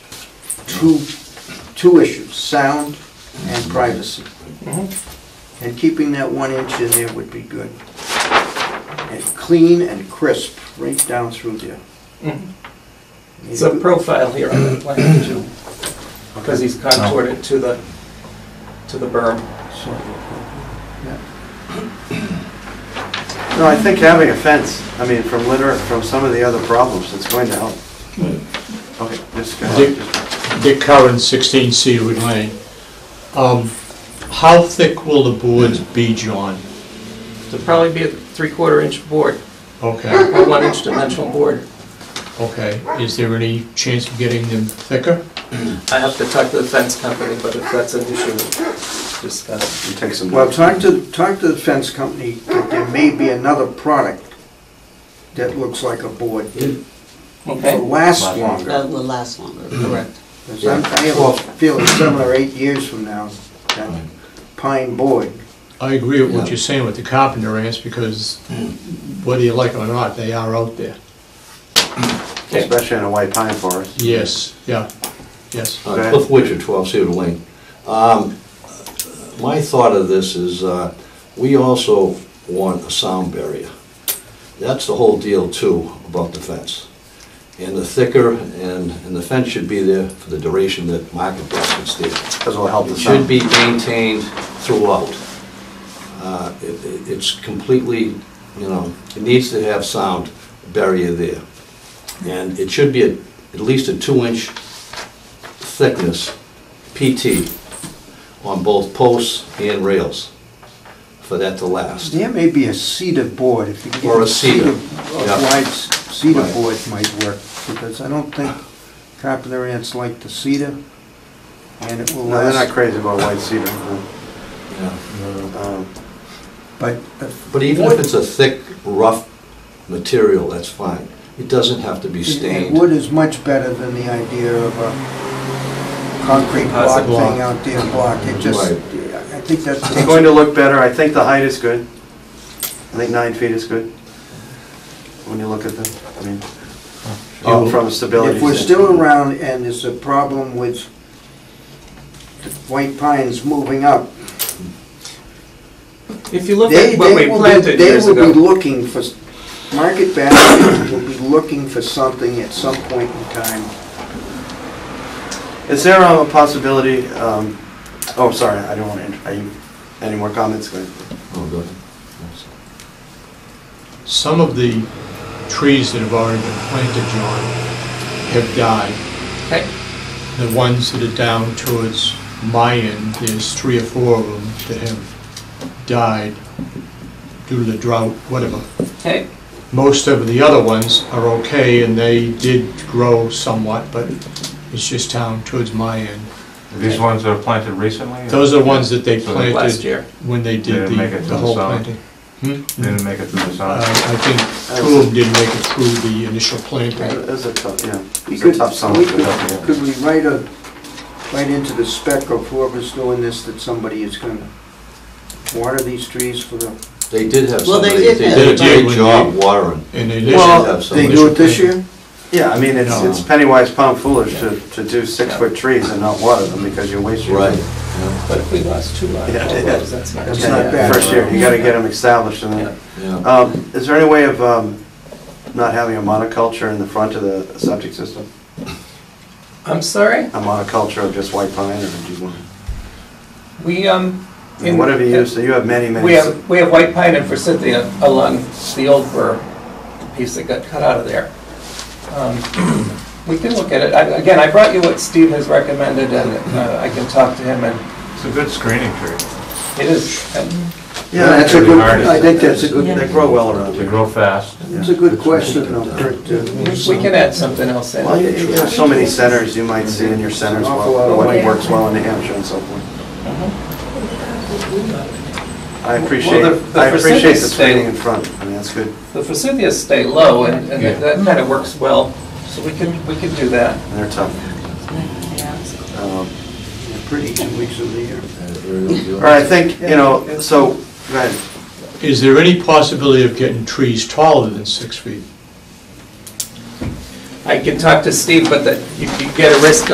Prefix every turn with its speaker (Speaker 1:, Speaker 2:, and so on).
Speaker 1: two, two issues, sound and privacy. And keeping that one inch in there would be good. And clean and crisp, right down through there.
Speaker 2: It's a profile here on the plan too, because he's contoured it to the, to the berm.
Speaker 1: So, yeah. No, I think having a fence, I mean, from litter, from some of the other problems, it's going to help. Okay, just go ahead.
Speaker 3: Dick Curran, 16 Cedarwood Lane. Um, How thick will the boards be, John?
Speaker 2: It'll probably be a three-quarter inch board,
Speaker 3: Okay,
Speaker 2: or one inch dimensional board.
Speaker 3: okay. Is there any chance of getting them thicker?
Speaker 2: I have to talk to the fence company, but if that's an issue, discuss.
Speaker 4: You take some.
Speaker 1: Well, talk to, talk to the fence company, that there may be another product that looks like a board that will
Speaker 2: Okay?
Speaker 1: last longer.
Speaker 5: That will last longer, correct.
Speaker 1: Because I'm- I have a feeling seven or eight years from now, that pine board.
Speaker 3: I agree with what you're saying with the carpenter ants, because whether you like it or not, they are out there.
Speaker 6: especially in a white pine forest.
Speaker 3: Yes, yeah, yes.
Speaker 6: Go
Speaker 4: Uh,
Speaker 6: ahead.
Speaker 4: Cliff Witcher, 12 Cedar Lane. Um, My thought of this is, uh, we also want a sound barrier. That's the whole deal too, about the fence. And the thicker, and, and the fence should be there for the duration that market basket's there.
Speaker 6: Because it'll help the
Speaker 4: It should
Speaker 6: sound.
Speaker 4: be maintained throughout. Uh, it- it- It's completely, you know, it needs to have sound barrier there. And it should be a- at least a two-inch thickness PT on both posts and rails for that to last.
Speaker 1: There may be a cedar board, if you can get
Speaker 4: Or a
Speaker 1: a cedar,
Speaker 4: cedar,
Speaker 1: a
Speaker 4: yeah.
Speaker 1: wide c- cedar
Speaker 4: Right.
Speaker 1: board might work, because I don't think carpenter ants like the cedar, and it will
Speaker 6: No, they're not
Speaker 1: last.
Speaker 6: crazy about white cedar.
Speaker 4: Yeah.
Speaker 6: Um,
Speaker 1: But uh,
Speaker 4: But even if it's a thick, rough material, that's fine. It doesn't have to be
Speaker 1: And
Speaker 4: stained.
Speaker 1: Wood is much better than the idea of a concrete block
Speaker 2: Composite
Speaker 3: block.
Speaker 1: thing out there, block, it just,
Speaker 4: Right.
Speaker 1: I think that's.
Speaker 6: It's going to look better, I think the height is good. I think nine feet is good. When you look at them, I mean,
Speaker 4: Oh.
Speaker 6: all from a stability.
Speaker 1: If we're
Speaker 6: standpoint.
Speaker 1: still around and there's a problem with the white pines moving up,
Speaker 2: If you look
Speaker 1: they,
Speaker 2: at what
Speaker 1: they
Speaker 2: we
Speaker 1: will be,
Speaker 2: planted
Speaker 1: they
Speaker 2: years
Speaker 1: will be
Speaker 2: ago,
Speaker 1: looking for, s- market basket will be looking for something at some point in time.
Speaker 6: Is there um, a possibility, um, oh, sorry, I don't want to, are you, any more comments? Go ahead.
Speaker 4: Oh, good.
Speaker 3: Some of the trees that have already been planted, John, have died.
Speaker 2: okay,
Speaker 3: The ones that are down towards my end, there's three or four of them that have died due to the drought, whatever.
Speaker 2: okay,
Speaker 3: Most of the other ones are okay, and they did grow somewhat, but it's just down towards my end.
Speaker 7: These ones that are planted recently?
Speaker 3: Those are the ones that they
Speaker 7: So they-
Speaker 2: last
Speaker 3: planted
Speaker 2: year.
Speaker 3: when they did
Speaker 7: Didn't
Speaker 3: the,
Speaker 7: make it to
Speaker 3: the
Speaker 7: the
Speaker 3: whole
Speaker 7: summer.
Speaker 3: planting. Hmm?
Speaker 7: They Didn't make it through the
Speaker 3: Uh,
Speaker 7: summer.
Speaker 3: I think two of them didn't make it through the initial planting.
Speaker 6: It was a tough, yeah,
Speaker 1: We
Speaker 6: it's a
Speaker 1: could,
Speaker 6: tough summer.
Speaker 1: we could, could we write a, write into the spec of whoever's doing this that somebody is gonna water these trees for the,
Speaker 4: They did have
Speaker 5: Well, they
Speaker 4: somebody, they
Speaker 5: did have
Speaker 4: did a
Speaker 3: somebody.
Speaker 4: great job watering.
Speaker 3: And the
Speaker 4: Well,
Speaker 3: initial,
Speaker 1: they do it this year?
Speaker 6: Yeah, I mean, it's,
Speaker 3: No.
Speaker 6: it's penny wise pound foolish to, to do six-foot trees and not water them because you waste your.
Speaker 4: Right. yeah,
Speaker 2: But if we lost two live
Speaker 6: Yeah,
Speaker 2: bulbs, that's not.
Speaker 1: that's
Speaker 2: too
Speaker 1: not bad.
Speaker 6: First year, you gotta get them established and then,
Speaker 4: yeah.
Speaker 6: um, is there any way of, um, not having a monoculture in the front of the subject system?
Speaker 2: I'm sorry?
Speaker 6: A monoculture of just white pine or do you want?
Speaker 2: We, um. in-
Speaker 6: Whatever you use, so you have many, many.
Speaker 2: We have, we have white pine and forsythia along the old burr piece that got cut out of there. Um, We can look at it. I- Again, I brought you what Steve has recommended, and uh, I can talk to him, and
Speaker 7: It's a good screening tree.
Speaker 2: it is, and
Speaker 6: Yeah,
Speaker 1: That's a
Speaker 6: that's-
Speaker 1: good,
Speaker 7: hard.
Speaker 1: I think that's a good,
Speaker 6: they grow well around
Speaker 7: They
Speaker 6: here.
Speaker 7: grow fast.
Speaker 1: It's a good question, though, Kurt, uh, to-
Speaker 2: we can add something else in.
Speaker 6: Well, you you have so many centers you might see in your centers,
Speaker 1: An awful lot
Speaker 6: well,
Speaker 1: of
Speaker 6: what
Speaker 1: land.
Speaker 6: works well in New Hampshire and so forth. I
Speaker 2: Uh-huh.
Speaker 6: appreciate,
Speaker 2: Well, the- the
Speaker 6: I appreciate the
Speaker 2: percentage thing-
Speaker 6: screening in front, I mean, that's good,
Speaker 2: The forsythias stay low, and and that that kind of works well, so we can, we can do that.
Speaker 6: and they're tough. Um,
Speaker 1: pretty two weeks of the year.
Speaker 6: All right, I think, you know, so, go ahead.
Speaker 3: is there any possibility of getting trees taller than six feet?
Speaker 2: I can talk to Steve, but that you you get a risk